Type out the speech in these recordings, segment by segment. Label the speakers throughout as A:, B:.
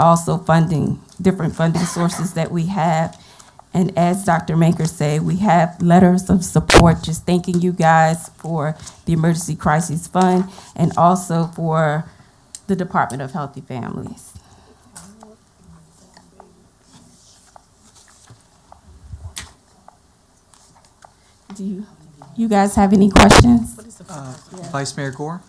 A: also funding, different funding sources that we have. And as Dr. Maker said, we have letters of support, just thanking you guys for the Emergency Crisis Fund and also for the Department of Healthy Families. Do you, you guys have any questions?
B: Uh, Vice Mayor Gore?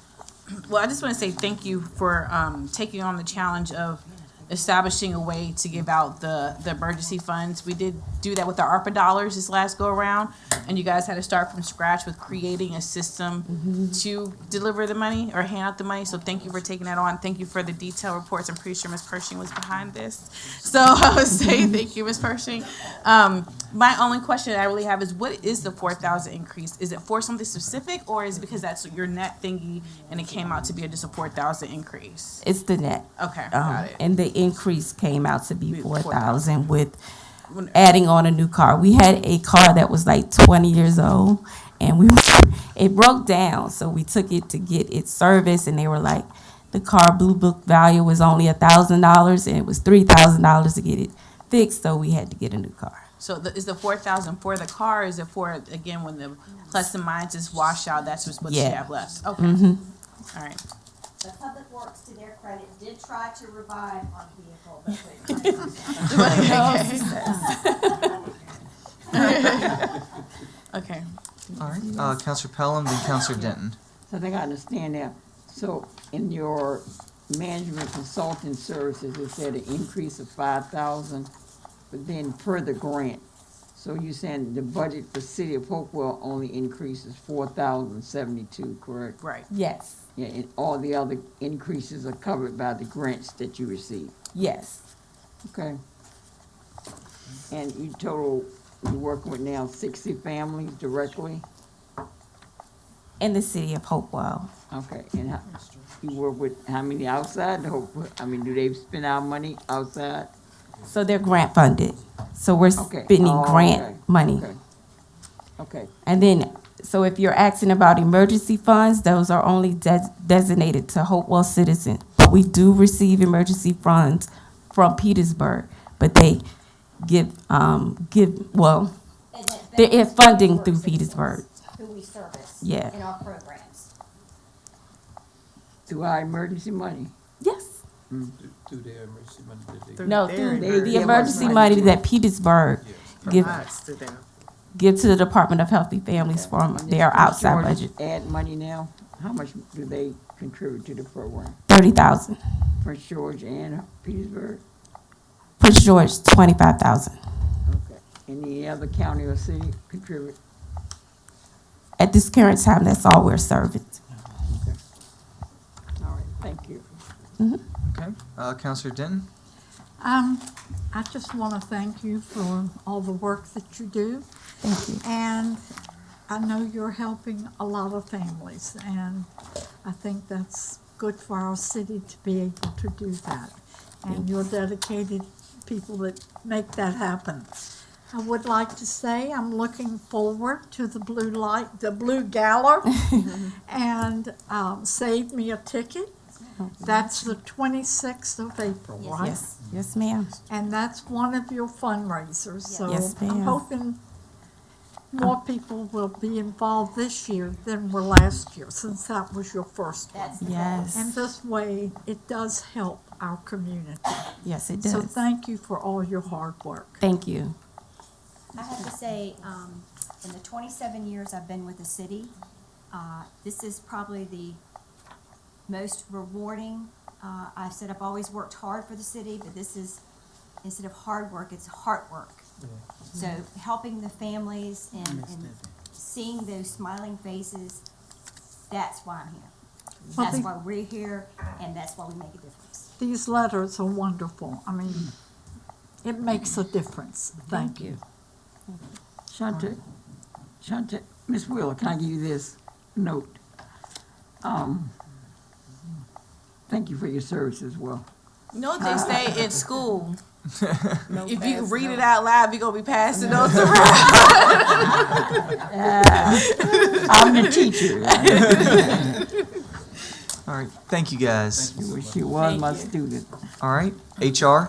C: Well, I just want to say thank you for um, taking on the challenge of establishing a way to give out the, the emergency funds. We did do that with our ARPA dollars this last go around, and you guys had to start from scratch with creating a system to deliver the money or hand out the money. So thank you for taking that on. Thank you for the detailed reports. I'm pretty sure Ms. Pershing was behind this. So I would say thank you, Ms. Pershing. Um, my only question I really have is what is the four thousand increase? Is it for something specific or is it because that's your net thingy and it came out to be just a four thousand increase?
A: It's the net.
C: Okay, got
A: Um,
C: it.
A: and the increase came out to be
C: Be
A: four thousand
C: 4,000.
A: with adding on a new car. We had a car that was like twenty years old and we, it broke down, so we took it to get it serviced and they were like, the car blue book value was only a thousand dollars and it was three thousand dollars to get it fixed, so we had to get a new car.
C: So the, is the four thousand for the car? Is it for again when the plus and minuses wash out? That's just what you
A: Yeah. Mm-hmm.
C: have left. Okay, All right.
D: But Public Works, to their credit, did try to revive our vehicle, but couldn't.
C: Okay.
B: All right, uh, Counselor Pelham, then Counselor Denton.
E: So I think I understand that. So in your management consulting services, it said an increase of five thousand, but then per the grant. So you're saying the budget for City of Hopewell only increases four thousand seventy-two, correct?
C: Right.
A: Yes,
E: Yeah, and all the other increases are covered by the grants that you receive,
A: yes,
E: okay? And you total, you're working with now sixty families directly?
A: in the city of Hopewell.
E: Okay, and how, you work with how many outside, the whole- I mean, do they spend our money outside?
A: So they're grant funded, so we're
E: Okay.
A: spending
E: Oh, okay.
A: grant money.
E: Okay. Okay,
A: And then, so if you're asking about emergency funds, those are only des- designated to Hopewell citizens. But we do receive emergency funds from Petersburg, but they give, um, give, well,
D: And that
A: There is
D: benefits
A: funding
D: Public
A: through
D: Works citizens
A: Petersburg.
D: Who we service.
A: Yeah.
D: In our programs.
E: through our emergency money,
A: yes,
F: through their emergency management.
A: no, through
E: their
A: the emergency
E: emergency money.
A: money that Petersburg give, give to the Department of Healthy Families from their outside
E: George,
A: budget,
E: Add money now, how much do they contribute to the program,
A: thirty thousand.
E: Prince George and Petersburg?
A: Prince George, twenty-five thousand.
E: Okay, any other county or city contribute?
A: At this current time, that's all we're serving.
E: All right, thank you.
B: Okay, uh, Counselor Denton?
G: Um, I just want to thank you for all the work that you do.
A: Thank you.
G: And I know you're helping a lot of families, and I think that's good for our city to be able to do that. And you're dedicated people that make that happen. I would like to say I'm looking forward to the blue light, the blue gala, and um, save me a ticket. That's the 26th of April, right?
A: Yes, yes, ma'am.
G: And that's one of your fundraisers, so
A: Yes,
G: I'm
A: ma'am.
G: hoping more people will be involved this year than were last year, since that was your first one.
D: That's
G: And
A: Yes,
G: this way, it does help our community.
A: yes, it
G: So
A: does.
G: thank you for all your hard work.
A: Thank you.
D: I have to say, um, in the twenty-seven years I've been with the city, uh, this is probably the most rewarding. Uh, I said I've always worked hard for the city, but this is, instead of hard work, it's heart work. So
A: Mm-hmm.
D: helping the families and, and seeing those smiling faces, that's why I'm here.
G: Well,
D: That's
G: the-
D: why we're here, and that's why we make a difference.
G: These letters are wonderful. I mean, it makes a difference. Thank you.
E: Shante, Shante, Miss Wheeler, can I give you this note? Um, thank you for your service as well.
C: You know what they say at school? if you read it out loud, you're gonna be passing those around.
E: I'm the teacher.
B: All right, thank you guys.
E: She was my student.
B: All right, HR,